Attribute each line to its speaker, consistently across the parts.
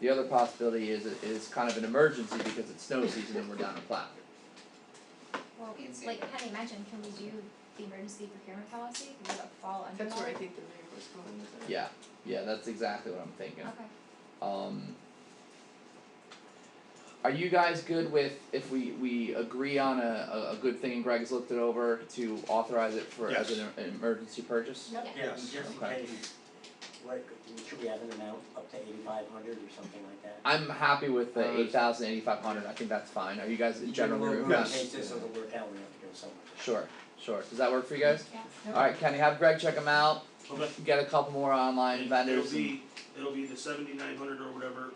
Speaker 1: The other possibility is it is kind of an emergency because it's snow season and we're down a plow.
Speaker 2: Well,
Speaker 3: Can't see
Speaker 2: like Penny mentioned, can we do the emergency procurement policy, will that fall under that?
Speaker 3: That's where I think the mayor was going with it.
Speaker 1: Yeah, yeah, that's exactly what I'm thinking.
Speaker 2: Okay,
Speaker 1: Um. Are you guys good with if we we agree on a a, a good thing and Greg's looked it over to authorize it for as an em- emergency purchase?
Speaker 2: Yep.
Speaker 4: Yeah, just in
Speaker 1: Okay.
Speaker 4: case, what, should we have an amount up to eighty-five hundred or something like that?
Speaker 1: I'm happy with
Speaker 5: Uh,
Speaker 1: the eight thousand eighty five hundred, I think that's fine, are you guys in general agree
Speaker 4: Even though
Speaker 1: with
Speaker 4: we're in
Speaker 1: that?
Speaker 4: case this doesn't work out, we have to go somewhere.
Speaker 1: Sure, sure, does that work for you guys?
Speaker 2: yeah.
Speaker 1: Alright, Kenny, have Greg check them out,
Speaker 6: Okay.
Speaker 1: get a couple more online
Speaker 6: And
Speaker 1: vendors
Speaker 6: It'll
Speaker 1: and-
Speaker 6: be, it'll be the seventy-nine hundred or whatever,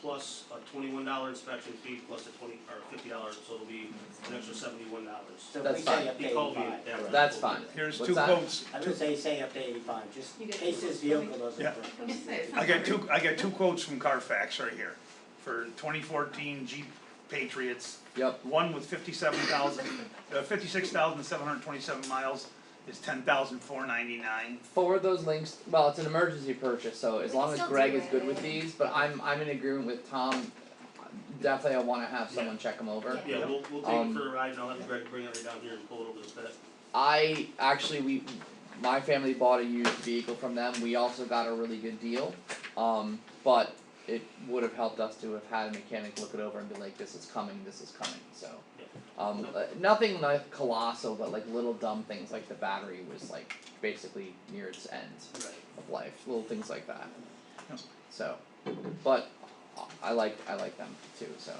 Speaker 6: plus a twenty-one dollar inspection fee, plus a twenty, or fifty dollars, so it'll be an extra seventy-one dollars.
Speaker 4: So if
Speaker 1: That's
Speaker 4: we say
Speaker 1: fine.
Speaker 4: up to
Speaker 6: He called me,
Speaker 4: eighty-five,
Speaker 6: that was-
Speaker 1: That's fine.
Speaker 7: Here's
Speaker 1: What's
Speaker 7: two
Speaker 1: that?
Speaker 7: quotes.
Speaker 4: I would say say up to eighty-five, just in
Speaker 3: You get-
Speaker 4: case this vehicle doesn't
Speaker 7: Yeah.
Speaker 4: work.
Speaker 7: I got two, I got two quotes from Carfax right here for twenty fourteen Jeep Patriots.
Speaker 1: Yep.
Speaker 7: One with fifty-seven thousand, uh, fifty-six thousand seven hundred twenty-seven miles is ten thousand four ninety-nine.
Speaker 1: forward those links. Well, it's an emergency purchase, so as
Speaker 2: We
Speaker 1: long
Speaker 2: can
Speaker 1: as
Speaker 2: still
Speaker 1: Greg
Speaker 2: do
Speaker 1: is good
Speaker 2: it.
Speaker 1: with these, but I'm I'm in agreement with Tom. Definitely, I want to have someone check them over.
Speaker 2: Yeah.
Speaker 6: Yeah, we'll, we'll take it
Speaker 1: Um,
Speaker 6: for a ride, and I'll have Greg bring it down here and pull it over the pit.
Speaker 1: I actually we my family bought a used vehicle from them. We also got a really good deal. Um, but it would have helped us to have had a mechanic look it over and be like, this is coming, this is coming. So, um, uh, nothing like colossal, but like little dumb things like the battery was like basically near its end of life, little things like that.
Speaker 7: Yep.
Speaker 1: So, but I like I like them too. So,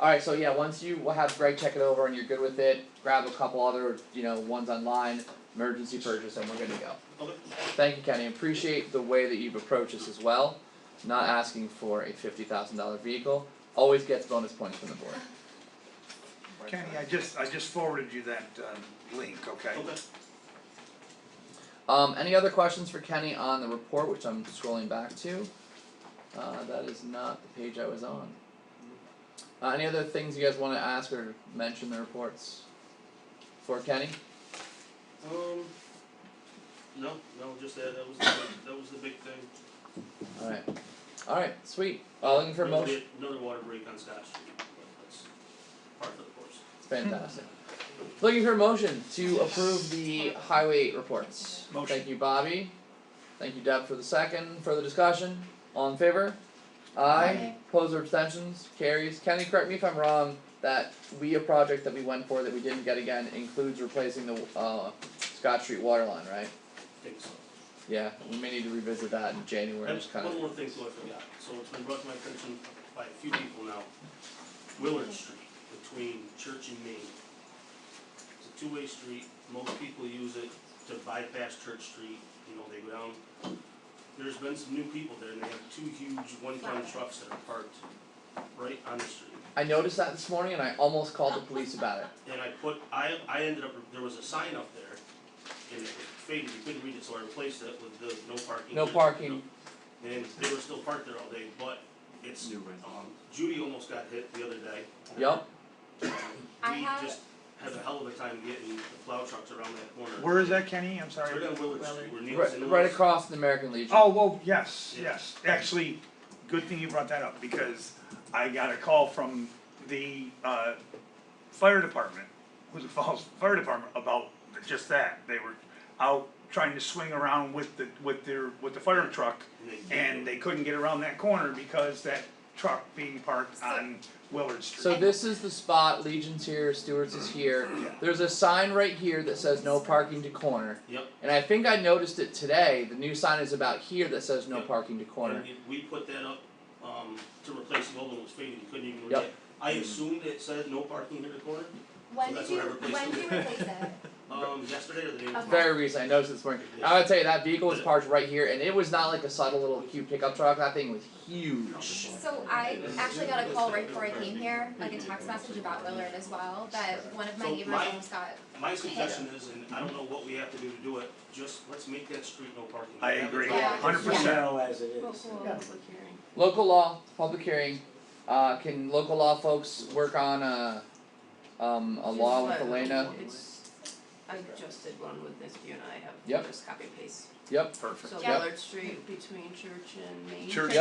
Speaker 1: all right. So yeah, once you will have Greg check it over and you're good with it, grab a couple other you know ones online, emergency purchase, and we're good to go.
Speaker 6: Okay.
Speaker 1: Thank you, Kenny. Appreciate the way that you've approached this as well. Not asking for a fifty thousand dollar vehicle always gets bonus points from the board.
Speaker 7: Kenny, I just, I just forwarded you that, uh, link, okay?
Speaker 6: Okay.
Speaker 1: Um, any other questions for Kenny on the report, which I'm scrolling back to? Uh, that is not the page I was on. Uh, any other things you guys wanna ask or mention the reports for Kenny?
Speaker 6: Um, no, no, just that, that was, the big- that was the big thing.
Speaker 1: Alright, alright, sweet, uh, looking for a
Speaker 6: There was
Speaker 1: motion,
Speaker 6: the- Another water break on Scott Street, but that's part of the course.
Speaker 1: it's fantastic. Looking for a motion to approve the highway reports.
Speaker 7: Motion.
Speaker 1: Thank you, Bobby, thank you, Deb, for the second, further discussion, all in favor? Aye,
Speaker 2: Aye.
Speaker 1: opposed or abstentions, carries, Kenny, correct me if I'm wrong, that we a project that we went for that we didn't get again includes replacing the uh Scott Street water line, right?
Speaker 6: Think so.
Speaker 1: Yeah, we may need to revisit that in January,
Speaker 6: That's
Speaker 1: just kind of.
Speaker 6: one more thing, so I forgot, so it's been brought to my attention by a few people now, Willard Street, between Church and Main. It's a two-way street, most people use it to bypass Church Street, you know, they go down. There's been some new people there, and they have two huge one-ton trucks that are parked right on the street.
Speaker 1: I noticed that this morning and I almost called the police about it.
Speaker 6: And I put, I, I ended up, there was a sign up there, and it faded, you couldn't read it, so I replaced it with the no parking.
Speaker 1: No parking,
Speaker 6: And they were still parked there all day, but it's, um, Judy almost got hit the other day.
Speaker 1: yep,
Speaker 2: I
Speaker 6: We
Speaker 2: had-
Speaker 6: just have a hell of a time getting the plow trucks around that corner.
Speaker 7: Where is that, Kenny? I'm sorry.
Speaker 6: Right on Willard Street, where Neil's
Speaker 1: right,
Speaker 6: in
Speaker 1: right across the American Legion.
Speaker 7: Oh, well, yes,
Speaker 6: Yeah.
Speaker 7: yes, actually, good thing you brought that up, because I got a call from the, uh, fire department, who's the Falls Fire Department, about just that, they were out trying to swing around with the, with their, with the fire truck, and they couldn't get around that corner because that truck being parked on Willard Street.
Speaker 1: So this is the spot, Legion's here, Stewart's is here. There's a sign right here that says no parking to corner.
Speaker 6: Yep.
Speaker 1: And I think I noticed it today, the new sign is about here that says no
Speaker 6: Yep.
Speaker 1: parking to corner.
Speaker 6: And it- we put that up, um, to replace the old one that was faded, you couldn't even read
Speaker 1: Yep.
Speaker 6: it. I assumed it said no parking near the corner,
Speaker 2: When
Speaker 6: that's
Speaker 2: did you,
Speaker 6: what I replaced
Speaker 2: when
Speaker 6: it
Speaker 2: did you
Speaker 6: with.
Speaker 2: replace it?
Speaker 6: um, yesterday or the day before.
Speaker 2: Okay.
Speaker 1: Very recent, I noticed this morning. I gotta tell you, that vehicle was parked right here, and it was not like a subtle little cute pickup truck. That thing was huge.
Speaker 2: So I actually got a call right before I came here, like a text message about Willard as well, that one of my
Speaker 6: So
Speaker 2: neighbors
Speaker 6: my-
Speaker 2: almost got,
Speaker 6: My suggestion is, and I don't know what we have to do to do it, just let's make that street no parking.
Speaker 7: I
Speaker 6: Have it
Speaker 7: agree,
Speaker 6: all-
Speaker 2: Yeah.
Speaker 7: hundred percent,
Speaker 4: Narrow as it
Speaker 3: Well,
Speaker 4: is.
Speaker 3: cool. Public hearing.
Speaker 1: Local law, public hearing. Uh, can local law folks work on a, um, a law with
Speaker 3: Just let-
Speaker 1: Elena?
Speaker 3: it's- I just did one with this, you and I have,
Speaker 1: Yep.
Speaker 3: just copy and paste.
Speaker 1: Yep.
Speaker 7: perfect.
Speaker 3: So
Speaker 2: Yep.
Speaker 3: Willard Street between Church and Main.
Speaker 7: Church